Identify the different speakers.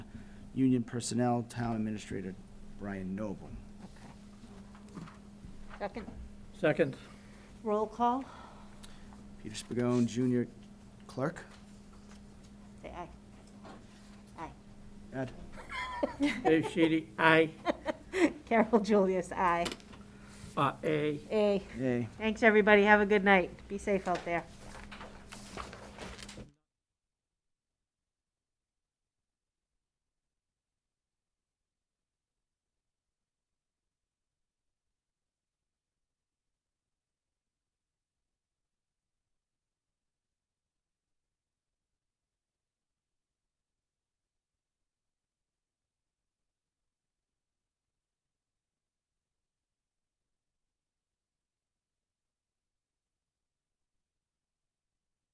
Speaker 1: Union Personnel, Town Administrator Brian Noble.
Speaker 2: Okay. Second,
Speaker 3: Second,
Speaker 2: roll call,
Speaker 1: Peter Spigot, Junior Clerk.
Speaker 2: say aye. Aye.
Speaker 1: Ed?
Speaker 3: Dave Sheedy, aye,
Speaker 2: Carol Julius, aye.
Speaker 3: uh, aye.
Speaker 2: Aye.
Speaker 1: Yay.
Speaker 2: Thanks, everybody. Have a good night. Be safe out there.